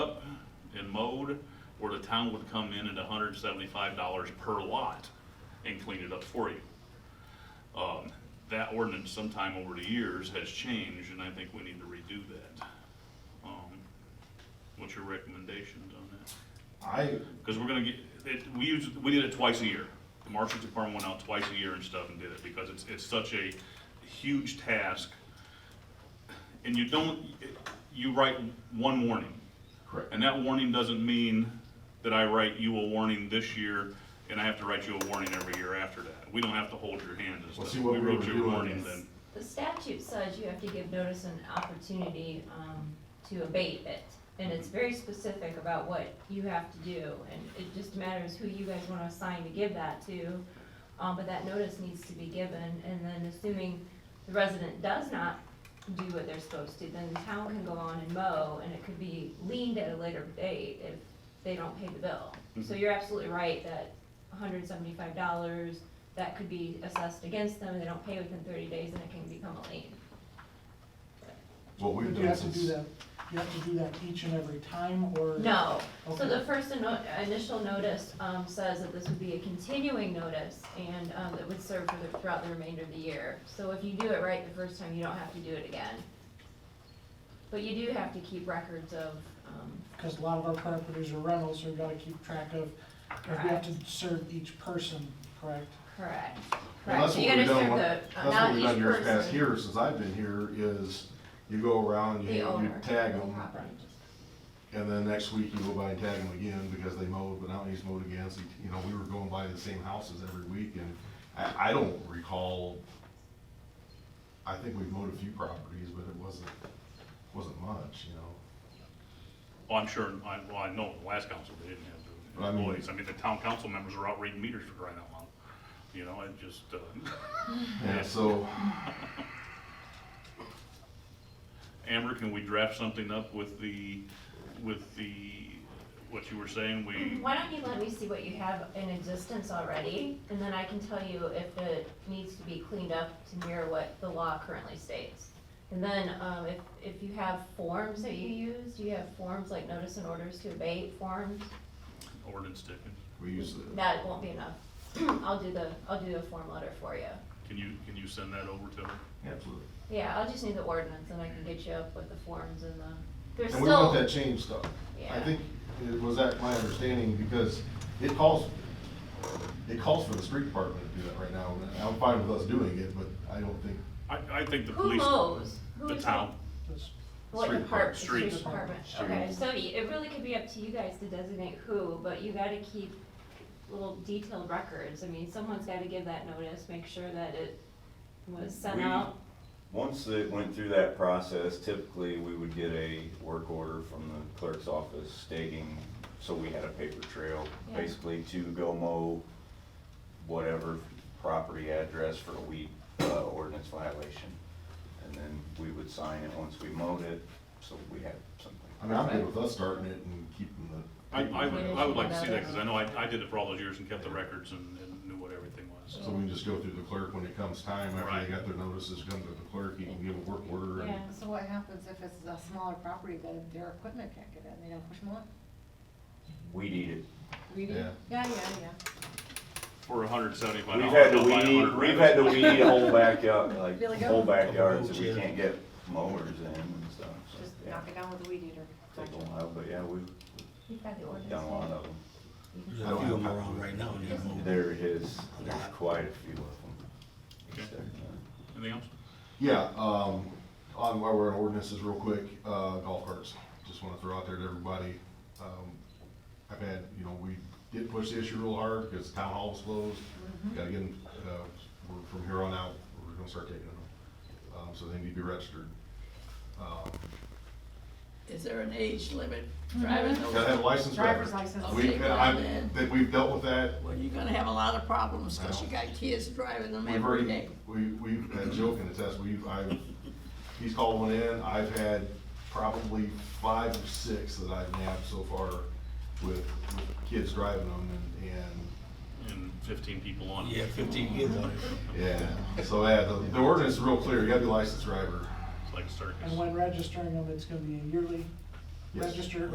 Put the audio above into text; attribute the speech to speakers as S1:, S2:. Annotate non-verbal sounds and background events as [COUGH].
S1: road, where the town would come in at hundred and seventy-five dollars per lot and clean it up for you. Um, that ordinance sometime over the years has changed, and I think we need to redo that. Um, What's your recommendations on that?
S2: I,
S1: Because we're gonna get, it, we use, we did it twice a year. The marshal's department went out twice a year and stuff and did it, because it's, it's such a huge task. And you don't, you write one warning,
S2: correct,
S1: and that warning doesn't mean that I write you a warning this year, and I have to write you a warning every year after that. We don't have to hold your hand and
S2: Well,
S1: stuff.
S2: see, what
S1: We
S2: we
S1: wrote
S2: were
S1: your
S2: doing
S1: warning
S2: is-
S1: then.
S3: The statute says you have to give notice and opportunity, um, to abate it. And it's very specific about what you have to do, and it just matters who you guys wanna assign to give that to. Um, but that notice needs to be given, and then assuming the resident does not do what they're supposed to, then the town can go on and mow, and it could be leaned at a later date if they don't pay the bill. So you're absolutely right that hundred and seventy-five dollars that could be assessed against them, they don't pay within thirty days, and it can become a lien.
S2: what
S4: But
S2: we've
S4: you
S2: done
S4: have to do
S2: since,
S4: that, you have to do that each and every time, or?
S3: No, so
S4: Okay.
S3: the first inno- initial notice, um, says that this would be a continuing notice, and, um, it would serve for the, throughout the remainder of the year. So if you do it right the first time, you don't have to do it again. But you do have to keep records of, um,
S4: Because a lot of our properties are rentals, so we gotta keep track of, or we have to serve each person, correct?
S3: correct,
S2: well,
S3: correct.
S2: that's
S3: So
S2: what
S3: you
S2: we've done,
S3: gotta serve
S2: one-
S3: the,
S2: that's
S3: uh, not
S2: what we've
S3: each
S2: done years past
S3: person,
S2: here, since I've been here, is you go around, you,
S3: the
S2: you
S3: owner.
S2: tag
S3: of the
S2: them,
S3: property.
S2: and then next week you go by and tag them again, because they mowed, but now he's mowed again, so, you know, we were going by the same houses every week, and I, I don't recall, I think we've mowed a few properties, but it wasn't, wasn't much, you know?
S1: Well, I'm sure, I, well, I know the last council, they didn't have
S2: But
S1: the
S2: I mean-
S1: employees. I mean, the town council members are out reading meters for crying out loud. You know, it just, uh,
S2: Yeah, so,
S1: Amber, can we draft something up with the, with the, what you were saying, we,
S3: Why don't you let me see what you have in existence already, and then I can tell you if it needs to be cleaned up to mirror what the law currently states. And then, um, if, if you have forms that you use, do you have forms like notice and orders to abate forms?
S1: ordinance Dickens?
S2: we use the.
S3: That won't be enough. [CLEARS THROAT] I'll do the, I'll do a form letter for you.
S1: Can you, can you send that over to her?
S2: Absolutely.
S3: Yeah, I'll just need the ordinance, and I can get you up with the forms and the, there's
S2: And we want
S3: still,
S2: that change stuff. I
S3: Yeah.
S2: think, it was that my understanding, because it calls, it calls for the street department to do that right now. and I'm fine with us doing it, but I don't think,
S1: I, I think the
S3: who
S1: police,
S3: mows? Who
S1: the
S3: is-
S1: town,
S4: That's-
S3: What
S2: Street
S3: department,
S1: department.
S3: street department, okay, so y- it really could be up to you guys to designate who, but you gotta keep little detailed records, I mean, someone's gotta give that notice, make sure that it was sent
S5: We-
S3: out.
S5: Once it went through that process, typically, we would get a work order from the clerk's office stating, so we had a paper trail,
S3: Yeah.
S5: basically to go mow whatever property address for a weed uh, ordinance violation. And then we would sign it once we mowed it, so we had something.
S2: I mean, I'm good with us starting it and keeping the.
S1: I, I would, I would like to see that, cause I know I, I did it for all those years and kept the records and, and knew what everything was.
S2: So we can just go through the clerk when it comes time, after
S1: Right.
S2: they got their notices, come to the clerk, he can give a work order. and-
S3: Yeah,
S6: So what happens if it's a smaller property that their equipment can't get in, they don't push them on?
S5: Weed eat it.
S6: Weed eat?
S2: Yeah.
S6: Yeah, yeah, yeah.
S1: For hundred and seventy-five
S5: We've
S1: dollars.
S5: had to weed, we've had to weed whole backyard,
S6: Billy
S5: like,
S6: Goat?
S5: whole backyards that we can't get mowers in and stuff, so,
S6: Just
S5: yeah.
S6: knock it down with a weed eater.
S5: Take a while, but yeah, we've
S3: you've got the ordinance.
S5: done a lot
S3: right?
S5: of them.
S3: You can-
S7: There's a few of them around right now, you know.
S5: There is, there's quite a few of them.
S1: Anything else?
S2: Yeah, um, on, while we're on ordinances real quick, uh, golf carts, just wanna throw out there to everybody. Um, I've had, you know, we did push the issue real hard because town hall was closed.
S6: Mm-hmm.
S2: Gotta get them, uh, we're- from here on out, we're gonna start taking them. Um, so they need to be registered. Uh,
S8: Is there an age limit driving those?
S2: Gotta have a license.
S6: Driver's
S2: record.
S6: license.
S2: We've,
S8: Okay,
S2: I,
S8: well,
S2: that we've dealt with that
S8: Well, you're gonna have a lot of problems, cause you got kids driving them
S2: We've
S8: every
S2: already,
S8: day.
S2: we, we've had joke in the test, we've, I've, he's called one in, I've had probably five or six that I've nabbed so far with, with kids driving them and, and,
S1: And fifteen people on it.
S7: Yeah, fifteen kids on it.
S2: yeah. So, yeah, the, the ordinance is real clear, you gotta be a licensed driver.
S1: It's like a circus.
S4: And when registering them, it's gonna be a yearly
S2: Yes.
S4: register,